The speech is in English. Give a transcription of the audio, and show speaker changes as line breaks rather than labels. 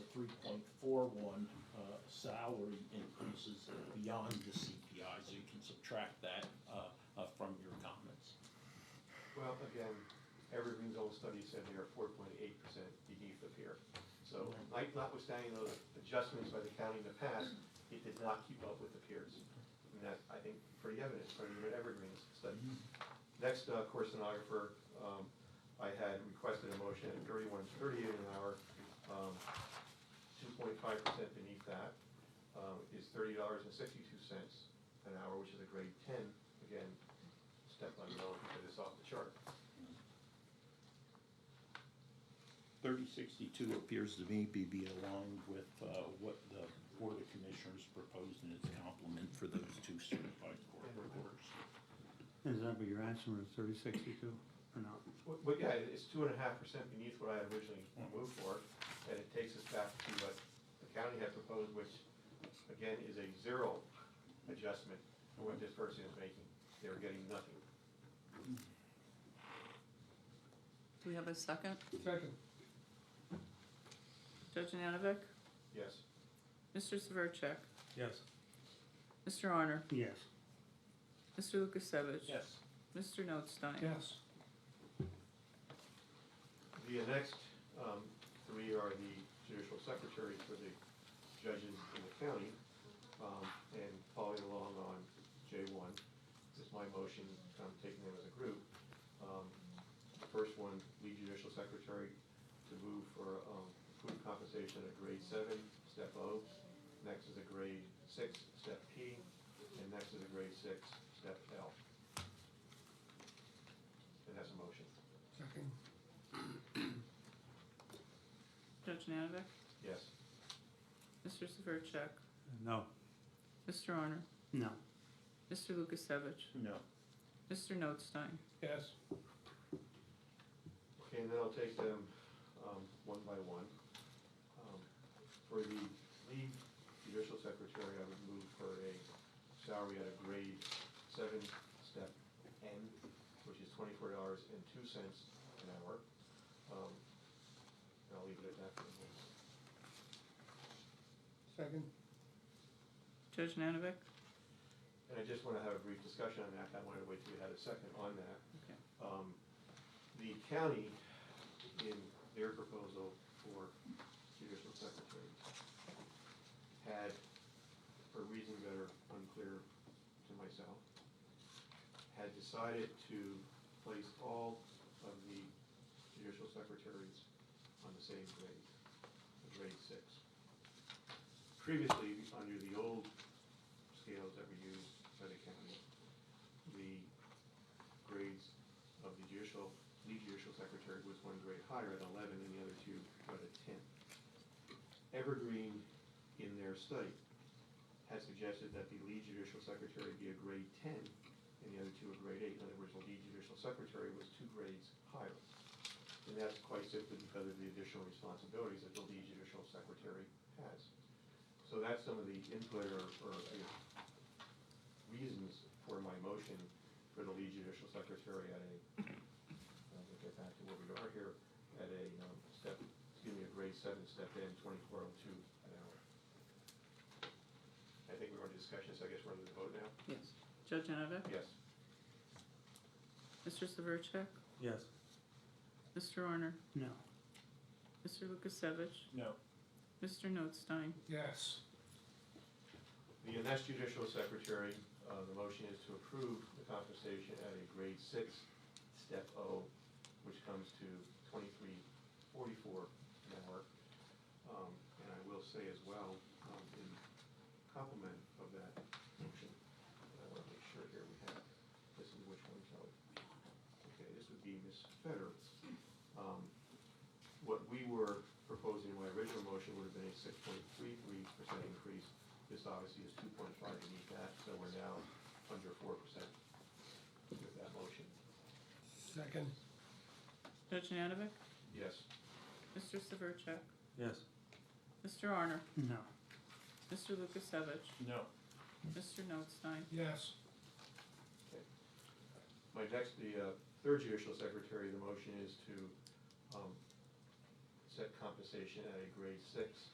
uh, salary increases beyond the CPI, so you can subtract that uh, uh, from your comments.
Well, again, Evergreen's own study said they are four point eight percent beneath the peer. So like notwithstanding those adjustments by the county in the past, it did not keep up with the peers. And that, I think, pretty evident from even Evergreen's study. Next, uh, core stenographer, um, I had requested a motion at thirty-one, thirty-eight an hour, um, two point five percent beneath that, um, is thirty dollars and sixty-two cents an hour, which is a grade ten, again, step unknown because it's off the chart.
3062 appears to me to be aligned with uh, what the Board of Commissioners proposed in its complement for those two certified court reporters.
Is that what you're asking, for thirty sixty-two or not?
But, but yeah, it's two and a half percent beneath what I had originally moved for, and it takes us back to what the county had proposed, which, again, is a zero adjustment for what this person is making. They were getting nothing.
Do we have a second?
Second.
Judge Nanovic?
Yes,
Mr. Severcek?
Yes.
Mr. Honor?
Yes.
Mr. Lukasevich?
Yes.
Mr. Notstein?
Yes.
the next, um, three are the judicial secretaries for the judges in the county. Um, and following along on J one, this is my motion, I'm taking them as a group. Um, The first one, lead judicial secretary to move for, um, approved compensation at grade seven, step O. Next is a grade six, step P, and next is a grade six, step L. And that's a motion.
Second.
Judge Nanovic?
Yes.
Mr. Severcek?
No.
Mr. Honor?
No.
Mr. Lukasevich?
No.
Mr. Notstein?
Yes.
Okay, and then I'll take them um, one by one. Um, For the lead judicial secretary, I would move for a salary at a grade seven, step N, which is twenty-four dollars and two cents an hour. Um, And I'll leave it at that for the moment.
Second.
Judge Nanovic?
And I just want to have a brief discussion on that, I wanted to wait till you had a second on that.
Okay.
Um, The county, in their proposal for judicial secretary, had, for reasons that are unclear to myself, had decided to place all of the judicial secretaries on the same grade, the grade six. Previously, under the old scales that were used by the county, the grades of the judicial, lead judicial secretary was one grade higher at eleven and the other two were at ten. Evergreen, in their study, had suggested that the lead judicial secretary be a grade ten and the other two a grade eight. In other words, the lead judicial secretary was two grades higher. And that's quite simply because of the additional responsibilities that the lead judicial secretary has. So that's some of the input or, or I guess, reasons for my motion for the lead judicial secretary at a, I'll get back to where we are here, at a um, step, excuse me, a grade seven, step in, twenty-four oh two an hour. I think we're in discussion, so I guess we're under the vote now?
Yes. Judge Nanovic?
Yes.
Mr. Severcek?
Yes.
Mr. Honor?
No.
Mr. Lukasevich?
No.
Mr. Notstein?
Yes.
The next judicial secretary, uh, the motion is to approve the compensation at a grade six, step O, which comes to twenty-three forty-four an hour. Um, and I will say as well, um, in complement of that motion, and I want to make sure here we have, this is which one, Kelly? Okay, this would be Ms. Feder. Um, what we were proposing in my original motion would have been a six point three three percent increase. This obviously is two point five beneath that, so we're now under four percent with that motion.
Second.
Judge Nanovic?
Yes.
Mr. Severcek?
Yes.
Mr. Honor?
No.
Mr. Lukasevich?
No.
Mr. Notstein?
Yes.
Okay. My next, the uh, third judicial secretary, the motion is to um, set compensation at a grade six,